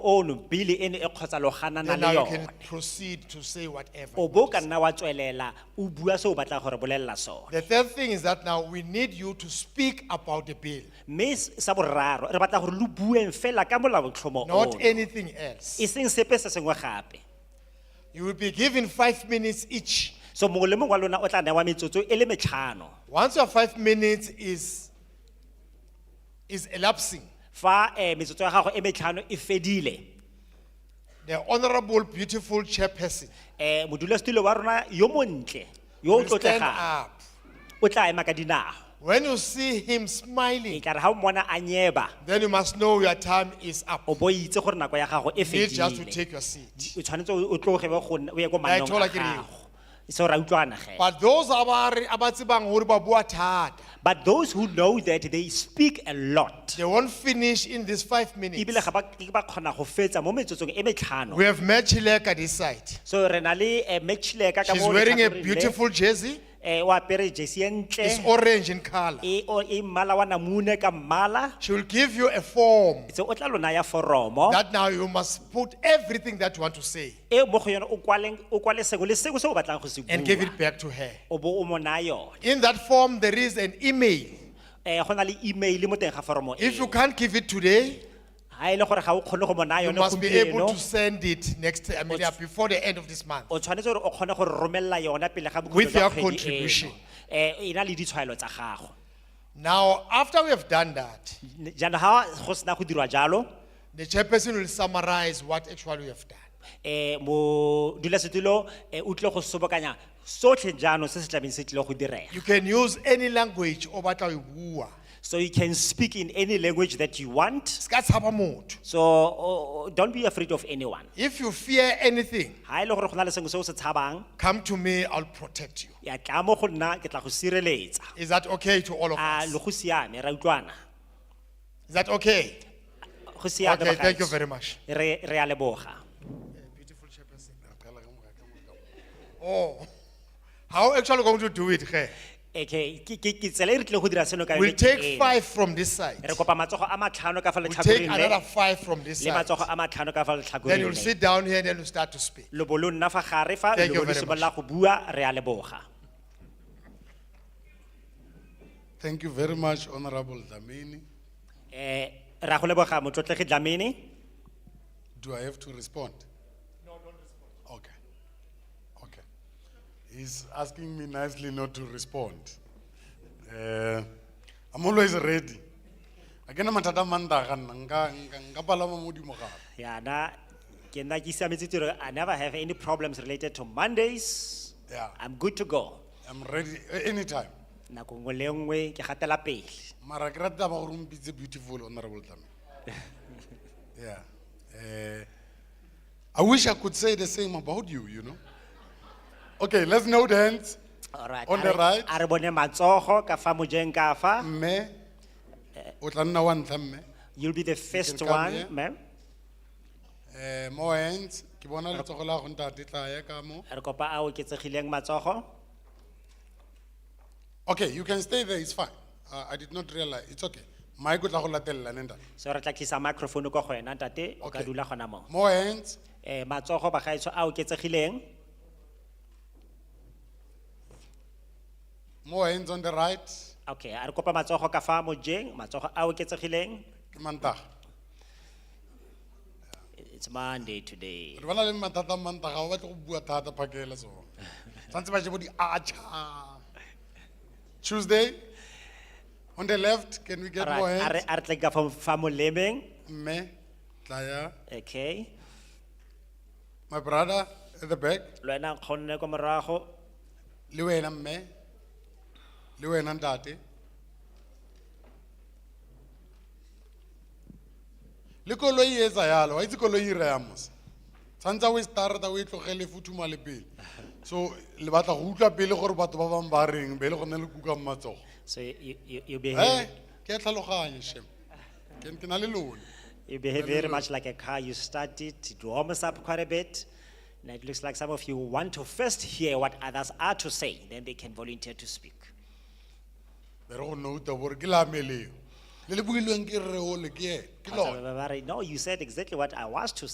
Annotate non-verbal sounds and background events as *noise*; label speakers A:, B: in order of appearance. A: ono bili ene e kgotsa logana na
B: Then
A: le
B: now you can
A: yona
B: proceed to say whatever.
A: o bo ka nna wa tswelela o bua se o batlang gore bolelela sone
B: The third thing is that now we need you to speak about the bill,
A: mme s- sa boraro re batla gore lo bueng fela ka molaotlhomo
B: not
A: ono
B: anything else.
A: e seng sepe se sengwe gape
B: You will be given five minutes each.
A: so mongwe le mongwe wa lona o tla newa metsotso e le metlhano
B: Once your five minutes is, is elapsing,
A: fa um metsotso ya gago e metlhano e fedile
B: the honorable, beautiful chairperson
A: um modulasetulo wa rona yo montle yo o
B: will stand
A: tlotlegang
B: up.
A: o tla ema ka dinao
B: When you see him
A: e
B: smiling,
A: tla re ga o mmona a nyeba
B: then you must know your time is up.
A: o bo itse gore nako ya gago e
B: You need just to
A: fedile
B: take your seat.
A: o tshwanetse o o tloge o ye go nna- o ye ko mannong
B: e thola
A: a
B: ke reng.
A: gago seo ra utlwana ge
B: But those abari abatsibang hori babua thata,
A: but those who know that they speak a lot
B: they won't finish in these five minutes.
A: ebile ga ba ke ba kgona go fetsa mo metsotsong e metlhano
B: We have met Chileka this side.
A: so re na le eh, matchleka ka
B: She's
A: mo
B: wearing a
A: letlhakoreng le,
B: beautiful jersey.
A: eh, o apere jesi e
B: It's
A: ntle
B: orange in color.
A: e o- e mmala wa namune ka mmala
B: She will give you a form
A: so o tla lona ya foromo
B: that now you must put everything that you want to say
A: e mo go yona o kwaleng- o kwale sengwe le sengwe se o batlang go se
B: and give it
A: bua
B: back to her.
A: o bo o mo naya yone
B: In that form, there is an email.
A: eh go na le email mo teng ga foromo
B: If you
A: e
B: can't give it today,
A: ha e le gore ga o kgone go mo naya
B: you
A: yone
B: must be able
A: gompieno
B: to send it next, I mean, yeah, before the end of this month.
A: o tshwanetse gore o kgone go re romella yona pele ga bokhutlo
B: With
A: jwa
B: your
A: kgwedi eno.
B: contribution.
A: eh e na le ditshwaelo tsa gago
B: Now, after we have done that,
A: Ne- jaanong ha go sena go dirwa jalo
B: the chairperson will summarize what actually we have done.
A: eh modulasetulo eh, o tlile go sobokanya sotlhe jaanong se se tlabeng se tlile go direga
B: You can use any language over Taiwan.
A: so you can speak in any language that you want so o- o- don't be afraid of anyone
B: If you fear anything,
A: ha e le gore go na le sengwe se o se tshabang
B: come to me, I'll protect you.
A: ya tla mo go nna ke tla go sireletsa
B: Is that okay to all of
A: a
B: us?
A: lo go siame ra utlwana
B: Is that okay?
A: go siame
B: Okay, thank you
A: bagaetsho.
B: very much.
A: re re a leboga
B: Oh, how actually going to do it here?
A: okay ke ke ke tsela e re tlile go dira seno ka
B: We'll
A: yone ke
B: take
A: ena.
B: five from this side.
A: re kopa matsogo a matlhano ka fa
B: We'll take
A: letlhakoreng
B: another
A: le
B: five from this
A: le
B: side.
A: matsogo a matlhano ka fa
B: Then
A: letlhakoreng
B: you'll
A: le
B: sit down here and then you'll start to speak.
A: lobo lo nna fa gare fa
B: Thank you
A: lobo lo
B: very
A: simolola go bua re a leboga
C: Thank you very much, Honorable Dlamini.
A: eh ra go leboga motlotlegi dlamene
C: Do I have to respond? No, don't respond. Okay, okay. He's asking me nicely not to respond. Uh, I'm always ready. Akena matata mandaga, nga, nga, nga palama modimo gape.
A: yana ke nna ke siametse tiro i never have any problems related to mondays
C: Yeah.
A: i'm good to go
C: I'm ready a- anytime.
A: nako nngwe le nngwe ke gatela pele
C: Mara ke rata ba gore o mpitse beautiful, Honorable Dlamini. *laughs* Yeah. Uh, I wish I could say the same about you, you know? Okay, let's note hands.
A: alright
C: On the
A: a re-
C: right.
A: a re bone matsogo ka fa mojeng ka fa
C: mme o tla nna wa ntlha mme
A: you'll be the first
C: come
A: one
C: here.
A: ma'am
C: Eh, mo hands ke bona letsogo la go ntate tla ya ka mo
A: re kopa a oketsegileng matsogo
C: okay you can stay there it's fine uh, i did not realize it's okay mike o tla go latelela ne ntate
A: so re tla tlisa microphone ko go wena ntate o ka
C: Okay.
A: dula gona moo
C: mo hands
A: um matsogo bagaetsho a oketsegileng
C: mo hands on the right
A: okay a re kopa matsogo ka fa mojeng matsogo a oketsegileng
C: ke mantaga
A: it's monday today
C: re bana le mathata a mantaga ga o batle go bua thata phakele sone tshwanetse ba je bo
B: Ah,
C: di-archer tuesday on the left can we get more
A: Alright, a re
C: hands
A: a re tleng ka fa- fa molemeng
C: mme tla ya
A: okay
C: my brother at the back
A: le wena nkgonne ko morago
C: le wena mme le wena ntate le koloi e etsa yalo wa itse koloi e raya mosa tshwanetse o e starta o e tlogele futhuma le pele so le batla go utlwa pele gore batho ba bangwe ba reng be e le gone le kuka mo matsogo
A: so you, you, you
C: e
A: behave,
C: ke a tlhaloganye shem ke ke na le lone
A: you behave very
C: Hello.
A: much like a car you start it it warms up quite a bit and it looks like some of you want to first hear what others are to say then they can volunteer to speak
C: be re go nouta bore ke lameleo le le builweng ke rre ole ke ene ke lona
A: Ba re, No, you said exactly what I was to